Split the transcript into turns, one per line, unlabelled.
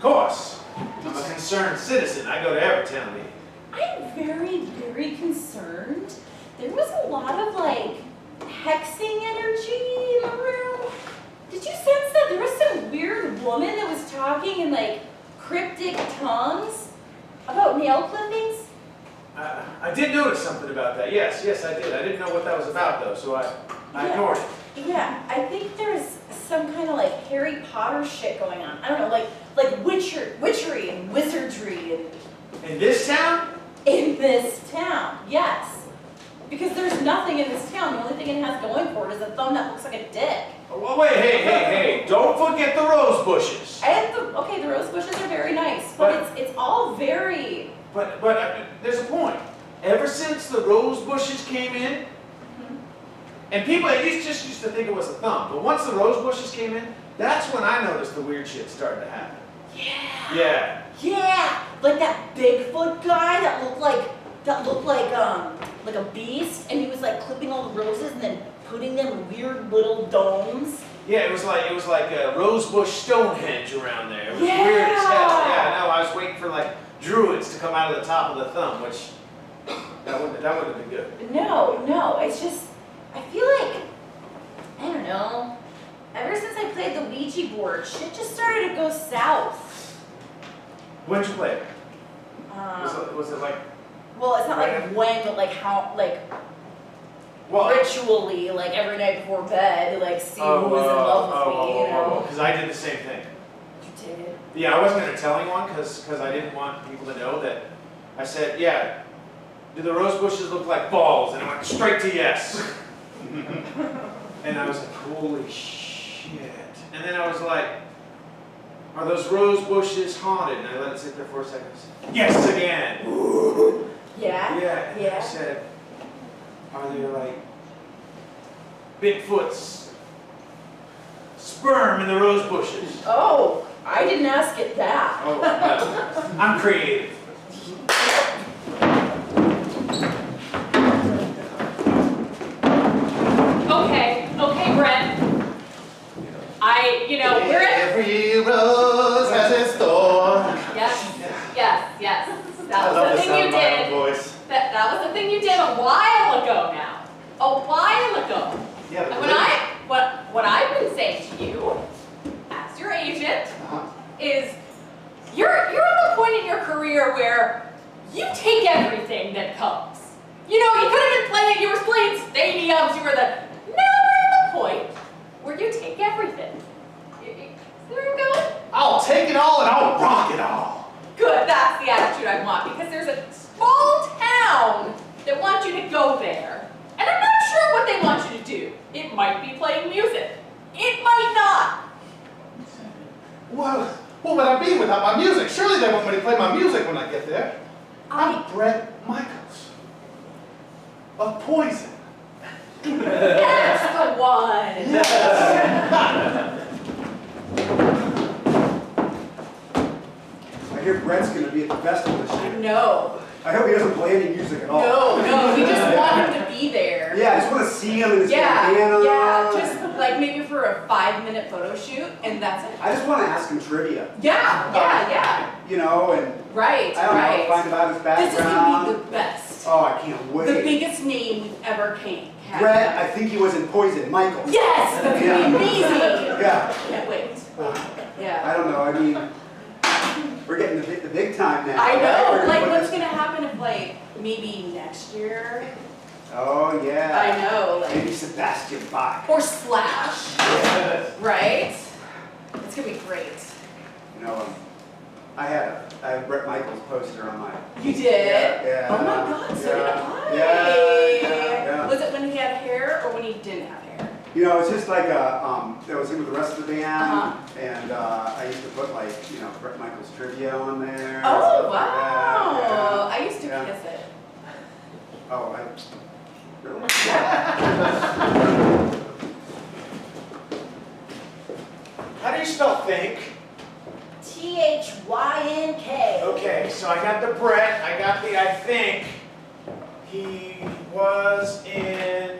course. I'm a concerned citizen. I go to every town meeting.
I'm very, very concerned. There was a lot of like hexing energy in the room. Did you sense that there was some weird woman that was talking in like cryptic tongues about nail clippings?
I, I did notice something about that. Yes, yes, I did. I didn't know what that was about though, so I, I
Yeah.
ignored it.
Yeah, I think there's some kind of like Harry Potter shit going on. I don't know, like like witcher, witchery and wizardry and
In this town?
in this town. Yes, because there's nothing in this town. The only thing it has going for it is a thumb that looks like a dick.
Oh, well, wait, hey, hey, hey! Don't forget the rose bushes.
And the, okay, the rose bushes are very nice, but it's it's all very.
But, but uh, there's a point. Ever since the rose bushes came in, and people at least just used to think it was a thumb, but once the rose bushes came in, that's when I noticed the weird shit started to happen.
Yeah.
Yeah.
Yeah, like that Bigfoot guy that looked like that looked like um like a beast, and he was like clipping all the roses and then putting them in weird little domes.
Yeah, it was like it was like a rosebush Stonehenge around there. It was
Yeah.
weird as hell. Yeah, I know. I was waiting for like druids to come out of the top of the thumb, which that wouldn't that wouldn't have been good.
No, no, it's just I feel like I don't know. Ever since I played the Ouija board, shit just started to go south.
When'd you play it? Was
Um,
it, was it like
well, it's not like when, but like how, like
well?
ritually, like every night before bed, like see
oh,
who was in
oh,
love with
oh,
me,
oh,
you
oh,
know.
oh, 'cause I did the same thing.
You did.
Yeah, I wasn't gonna tell anyone because I didn't want people to know that. I said, yeah. Do the rose bushes look like balls? And I went straight to yes. and I was like, holy shit. And then I was like, are those rose bushes haunted? And I let it sit there for a second. I said, Yes again.
Yeah.
Yeah. And I
Yeah.
said, are there like Bigfoot's sperm in the rose bushes?
Oh, I didn't ask it that.
Oh, no. I'm creative.
Okay, okay, Brent. I, you know, we're at,
Every rose has its thorn.
yes, yes, yes.
I
That
love
was
the
the thing
sound
you
of my own
did.
voice.
That, that was the thing you did a while ago now. A while ago.
Yeah,
And when I, what, what I've been saying to you, as your agent,
Uh-huh.
is you're, you're at the point in your career where you take everything that comes. You know, you could have been playing, you were playing stadiums, you were the, now we're at the point where you take everything. You- you- See where I'm going?
I'll take it all and I'll rock it all.
Good, that's the attitude I want because there's a small town that wants you to go there. And I'm not sure what they want you to do. It might be playing music. It might not.
Well, what would I be without my music? Surely they want me to play my music when I get there. I'm Brett Michaels. Of Poison.
That's the one.
I hear Brett's gonna be at the festival this year.
No,
I hope he doesn't play any music at all.
no, no. We just want him to be there.
Yeah, I just wanna see him in his
yeah,
bandana.
yeah. Just like maybe for a five minute photo shoot and that's it.
I just wanna ask him trivia,
Yeah, yeah, yeah.
you know, and
Right,
I don't know,
right.
find about his
This is gonna
background.
be the best.
Oh, I can't
The
wait.
biggest name we've ever came. had.
Brett, I think he was in Poison, Michael.
Yes, that's gonna be amazing.
Yeah,
Can't wait. Yeah.
I don't know, I mean, we're getting the big, the big time now.
I
right? We're
know.
gonna
Like,
put
what's
this-
gonna happen if, like, maybe next year?
Oh, yeah.
I know, like,
Maybe Sebastian Bach.
or Slash, right? It's gonna be great.
You know, um, I had a, I have Brett Michaels poster on my
You did?
Yeah.
Oh my god, so did
yeah,
I.
Yeah, yeah, yeah.
Was it when he had hair or when he didn't have hair?
You know, it's just like a, um, that was in with the rest of the band,
Uh-huh.
and uh, I used to put like, you know, Brett Michaels trivia on there. and
Oh,
stuff like
wow.
that,
I used to
Yeah.
kiss it.
yeah. Oh, I really.
How do you spell think?
T H Y N K.
Okay, so I got the Brett, I got the I think. He was in